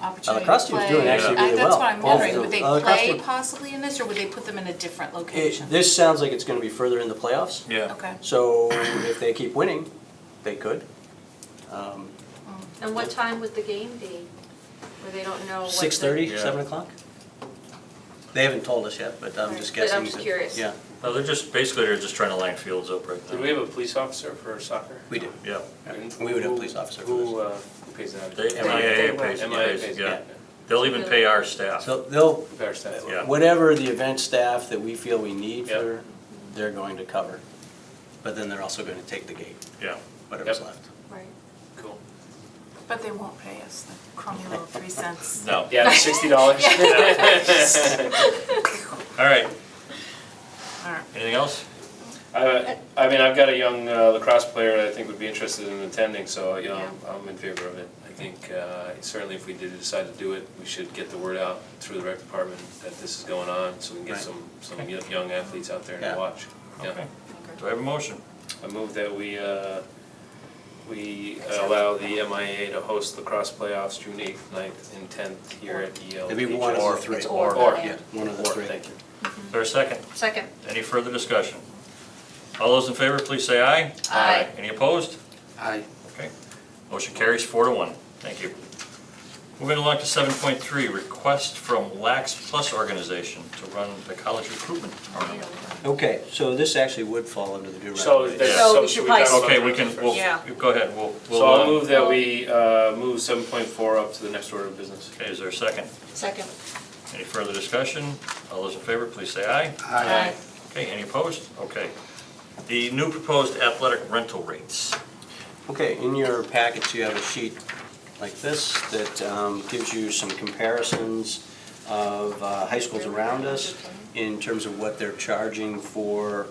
opportunity to play? Crust Team's doing actually I- really That's well. what I'm Both wondering, the- would they uh, the Crust play Team- possibly in this, or would they put them in a different location? It, this sounds like it's gonna be further in the playoffs. Yeah. Okay. So if they keep winning, they could. Um, And what time would the game be? Where they don't know what. Oh, the- Six thirty, Yeah. seven o'clock? They haven't told us yet, but I'm just Right, but guessing. I'm just that- curious. Yeah, No, they're just, basically, they're just trying to line fields up right now. Do we have a police officer for soccer? we do. Yeah, And We would have a who- police officer for Who, this. uh, who pays that? they, MIAA pays, MIA pays, pays, yeah. yeah. They'll even pay our staff. So they'll, Fair stat. Uh, Yeah. whatever the event staff that we feel we need Yep. for, they're going to cover. But then they're also gonna take the gate, Yeah, whatever's Yep. left. Right. Cool. But they won't pay us the crummy little three cents. no. Yeah, sixty dollars. All right, All right. anything else? I, I mean, I've got a young uh, lacrosse player that I think would be interested in attending, so, you know, I'm- I'm in favor of it. I think uh, certainly if we did decide to do it, we should get the word out through the rec department that this is going on, so we can get Right. some, some y- young athletes out there Yeah. and watch. Yeah. Okay. Do I have a motion? I move that we, uh, we allow the MIA to host lacrosse playoffs June eighth, 9th, and tenth here at E EL. It'd be one of the three. It's or. Or, not yeah. and. One of the Or, three. Thank you. Is there a second? Second. Any further discussion? All those in favor, please say aye. Aye. Any opposed? Aye. Okay. Motion carries four to one. Thank you. Moving along to seven point three, request from Lax Plus Organization to run the college recruitment tournament. Okay, so this actually would fall under the due So, recommendation. that's- So so we should should we talk probably- about Okay, the we rec can, first? we'll, Yeah. go ahead, we'll, we'll. So uh, I'll move that we uh, move seven point four up to the next order of business. Okay, is there a second? Second. Any further discussion? All those in favor, please say aye. Aye. Okay, any opposed? Okay. The new proposed athletic rental rates. Okay, in your packets, you have a sheet like this that um, gives you some comparisons of uh, high schools around us in terms of what they're charging for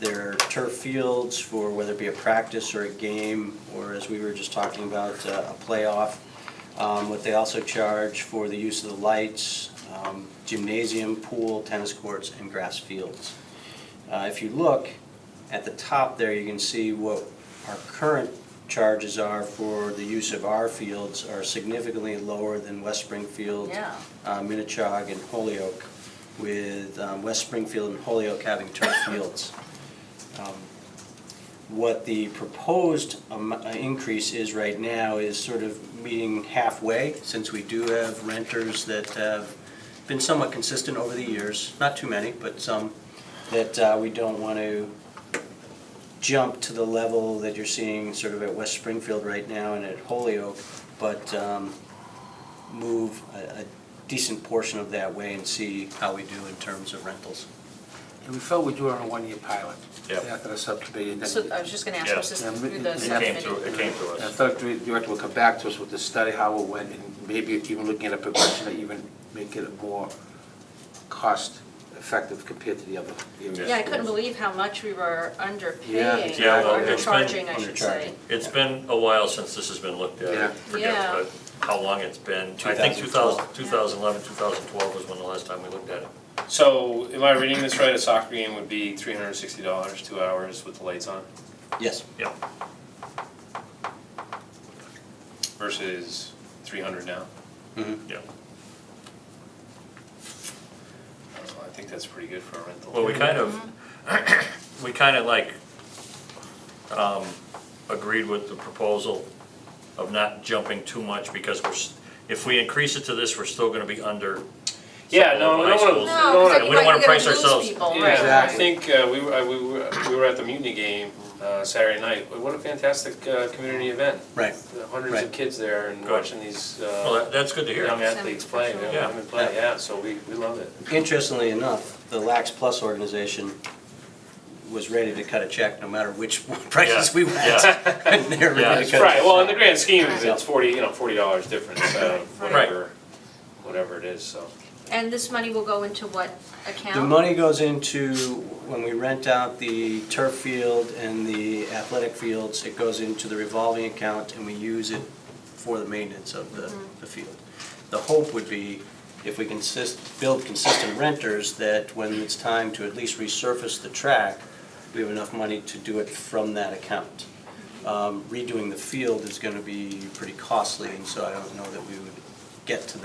their turf fields, for whether it be a practice or a game, or as we were just talking about, uh, a playoff. Um, What they also charge for the use of the lights, um, gymnasium, pool, tennis courts, and grass fields. Uh, If you look at the top there, you can see what our current charges are for the use of our fields are significantly lower than West Springfield, Yeah. uh, Minichog, and Holyoke, with um, West Springfield and Holyoke having turf fields. Um, What the proposed am- uh, increase is right now is sort of meeting halfway, since we do have renters that have been somewhat consistent over the years, not too many, but some, that uh, we don't want to jump to the level that you're seeing sort of at West Springfield right now and at Holyoke, but um, move a a decent portion of that way and see how we do in terms of rentals. And we felt we'd do it on a one-year pilot. Yep. After the subcommittee, and So I then. was just gonna ask, was this Yeah. through Yeah. the It came subcommittee? through, it came to And I us. thought the director would come back to us with the study, how it went, and maybe even looking at a progression to even make it more cost-effective compared to the other areas. Yeah, I couldn't believe how much we were underpaying, Yeah, well, or it's been undercharging, I should say. undercharging. It's been a while since this has been looked at. I Yeah. Forget Yeah. uh, how long it's been. I think 2012. 2000 2011, 2012 was when the last time we looked at it. So am I reading this right? A soccer game would be three hundred and sixty dollars, two hours with the lights on Yes. Yeah. versus three hundred now? Yeah. I don't know, I think that's pretty good for a rental. Well, we kind of, Mm-hmm. we kind of like, um, agreed with the proposal of not jumping too much because we're, s- if we increase it to this, we're still gonna be under. Yeah, no, some high I don't wanna- schools. No, 'cause I And We don't wanna price ourselves. right? Yeah, I think uh, we were, I- we were, we were at the mutiny game uh, Saturday night. What a fantastic uh, community event. Right. The Hundreds of Right. kids there and Good. watching these uh, Well, that- that's good to hear. young athletes play, Sure. young Yeah. women play, yeah, so we, we love it. Interestingly enough, the Lax Plus organization was ready to cut a check no matter which prices we went. Yeah. They were Yeah. ready to cut a Right, check. well, in the grand scheme, of it, Yeah. it's forty, you know, forty dollars difference, uh, Right. whatever, whatever it is, so. And this money will go into what account? The money goes into, when we rent out the turf field and the athletic fields, it goes into the revolving account and we use it for the maintenance of the, the field. The hope would be, if we consist, build consistent renters, that when it's time to at least resurface the track, we have enough money to do it from that account. Um, Redoing the field is gonna be pretty costly, and so I don't know that we would get to